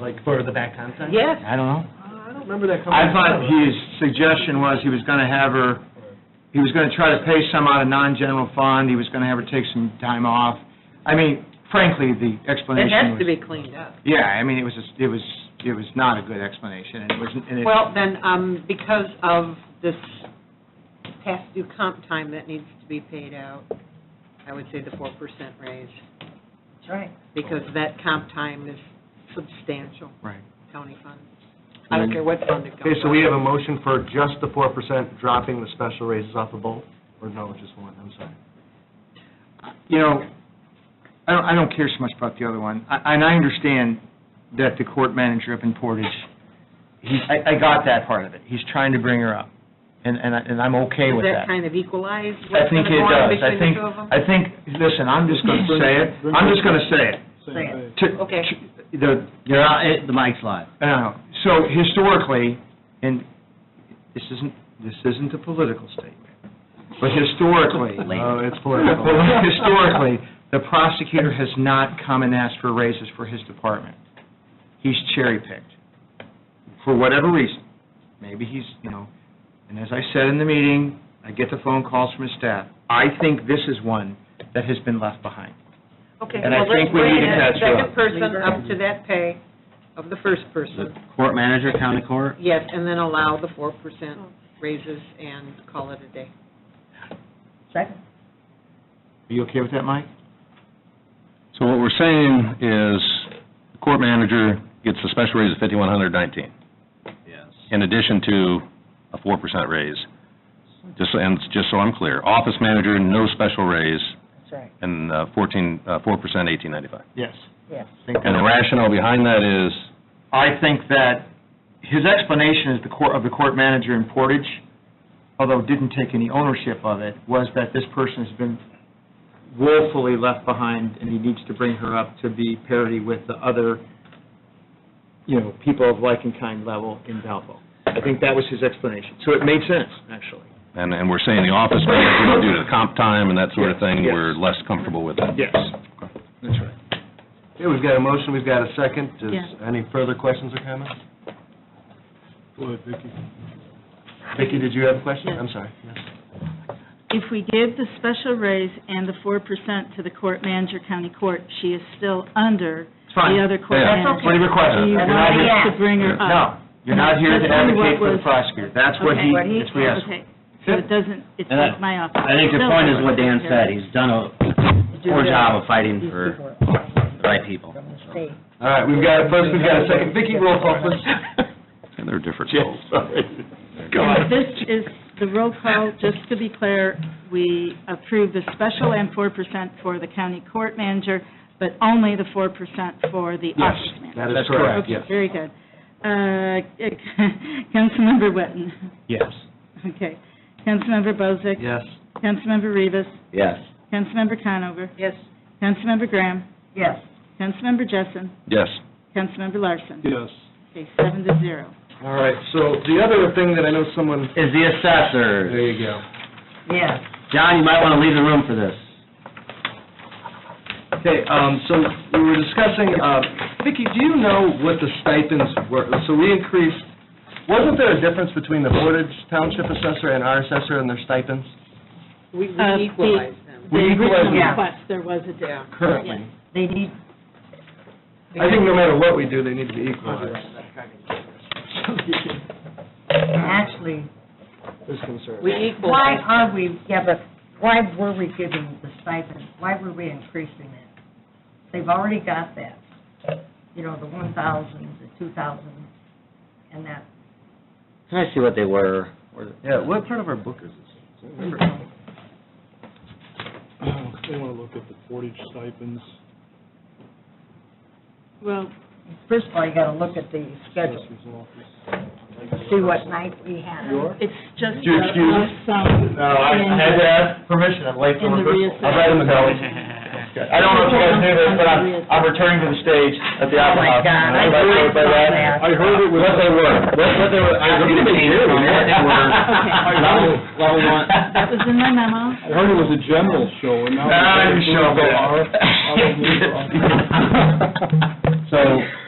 Like for the back concept? Yes. I don't know. I don't remember that coming. I thought his suggestion was he was gonna have her, he was gonna try to pay some out of non-general fund, he was gonna have her take some time off. I mean, frankly, the It explanation has to be was... cleaned up. Yeah, I mean, it was, a- it was, it was not a good explanation, and it wasn't, and it... Well, then, um, because of this past due comp time that needs to be paid out, I would say the four percent raise, That's right. because that comp time is substantial, Right. county fund. I don't care what fund it Okay, comes so we have a from. motion for just the four percent dropping the special raises off of both, or no, just one, I'm sorry. you know, I don't, I don't care so much about the other one. I- And I understand that the court manager up in Portage, he, I, I got that part of it. He's trying to bring her up, and, and I, and I'm okay with Does that. that kind of equalize I what's going think to it go on does. I between think, the two of them? I think, listen, I'm just gonna say it, I'm just gonna say it. Say it. To- Okay. to- The, You're on, eh, the mic's live. uh, So historically, and this isn't, this isn't a political statement, but historically. Oh, it's Well, political. historically, the prosecutor has not come and asked for raises for his department. He's cherry-picked, for whatever reason. Maybe he's, you know, and as I said in the meeting, I get the phone calls from his staff. I think this is one that has been left behind. Okay, and I well, let's think we bring need to that catch second up. person up to that pay of the first The person, court manager, county court? yes, and then allow the four percent raises and call it a day. Second. Are you okay with that, Mike? So what we're saying is, the court manager gets a special raise of fifty-one hundred nineteen, Yes. in addition to a four percent raise. Just, so- and just so I'm clear, office manager, no special raise, That's right, and uh, fourteen, uh, four percent, eighteen ninety-five. Yes. yes. And the rationale behind that is, I think that his explanation is the court, of the court manager in Portage, although didn't take any ownership of it, was that this person has been woefully left behind, and he needs to bring her up to be parity with the other, you know, people of like and kind level in Valpo. I think that was his explanation. So it made sense, actually. and, and we're saying the office manager, due to the comp time and that sort of thing, Yes. we're less comfortable with that. Yes. That's right. Okay, we've got a motion, we've got a second. Is Yeah. any further questions or comments? Vicki, did you have a question? Yes. I'm sorry. If we gave the special raise and the four percent to the court manager, county court, she is still under It's fine. the other court Yeah. manager. That's What are your Do questions? you You're not want here- us to bring her No, up? you're not here to That's only what advocate for the was- prosecutor. That's what he, Okay. that's what he asked for. Okay, so it doesn't, it's And I- like my office. I think your point is what Dan said, he's done a poor job of fighting These for people are the right people. from the state. All right, we've got, a first, we've got a second. Vicki, roll call, please. And they're different Yes, goals. sorry. This is the roll call, just to be clear, we approve the special and four percent for the county court manager, but only the four percent for the Yes, office manager. That is That's correct, correct. Okay, yes. very good. Uh, Councilmember Witten, Yes. okay. Councilmember Bozick. Yes. Councilmember Rivas. Yes. Councilmember Conover. Yes. Councilmember Graham. Yes. Councilmember Jessen. Yes. Councilmember Larson. Yes. Okay, seven to zero. All right, so the other thing that I know someone, Is the there assessor. you go. Yes. John, you might want to leave the room for this. Okay, um, so we were discussing, uh, Vicki, do you know what the stipends were? So we increased, wasn't there a difference between the Portage Township assessor and our assessor and their stipends? We we Uh, the- equalize them. The We equalize original them. request, there was a difference. Yeah. Currently. They need, I think no matter what we do, they need to be equalized. actually, There's concern. We equal, why are we, yeah, but why were we giving the stipend? Why were we increasing it? They've already got that, you know, the one thousand, the two thousand, and that. Can I see what they were? Where the- Yeah, what part of our book is this? They want to look at the portage stipends. Well, First of all, you gotta look at the schedule, see what night we had. it's just Do a you excuse? lump sum. No, I and- had to ask permission, I'm late for And the rehearsal. reassessment. I'm right in the belly. I don't know if you guys knew this, but I'm, I'm returning to the stage at the Opera Oh, my House. God, I Everybody really know about saw that. I heard it was, What they were, what, what they were. I asking to didn't change hear from it. what they were. Okay. Level- level one. That was in my memo. I heard it was a general show, and now. Nah, you show up. Are- are they- So,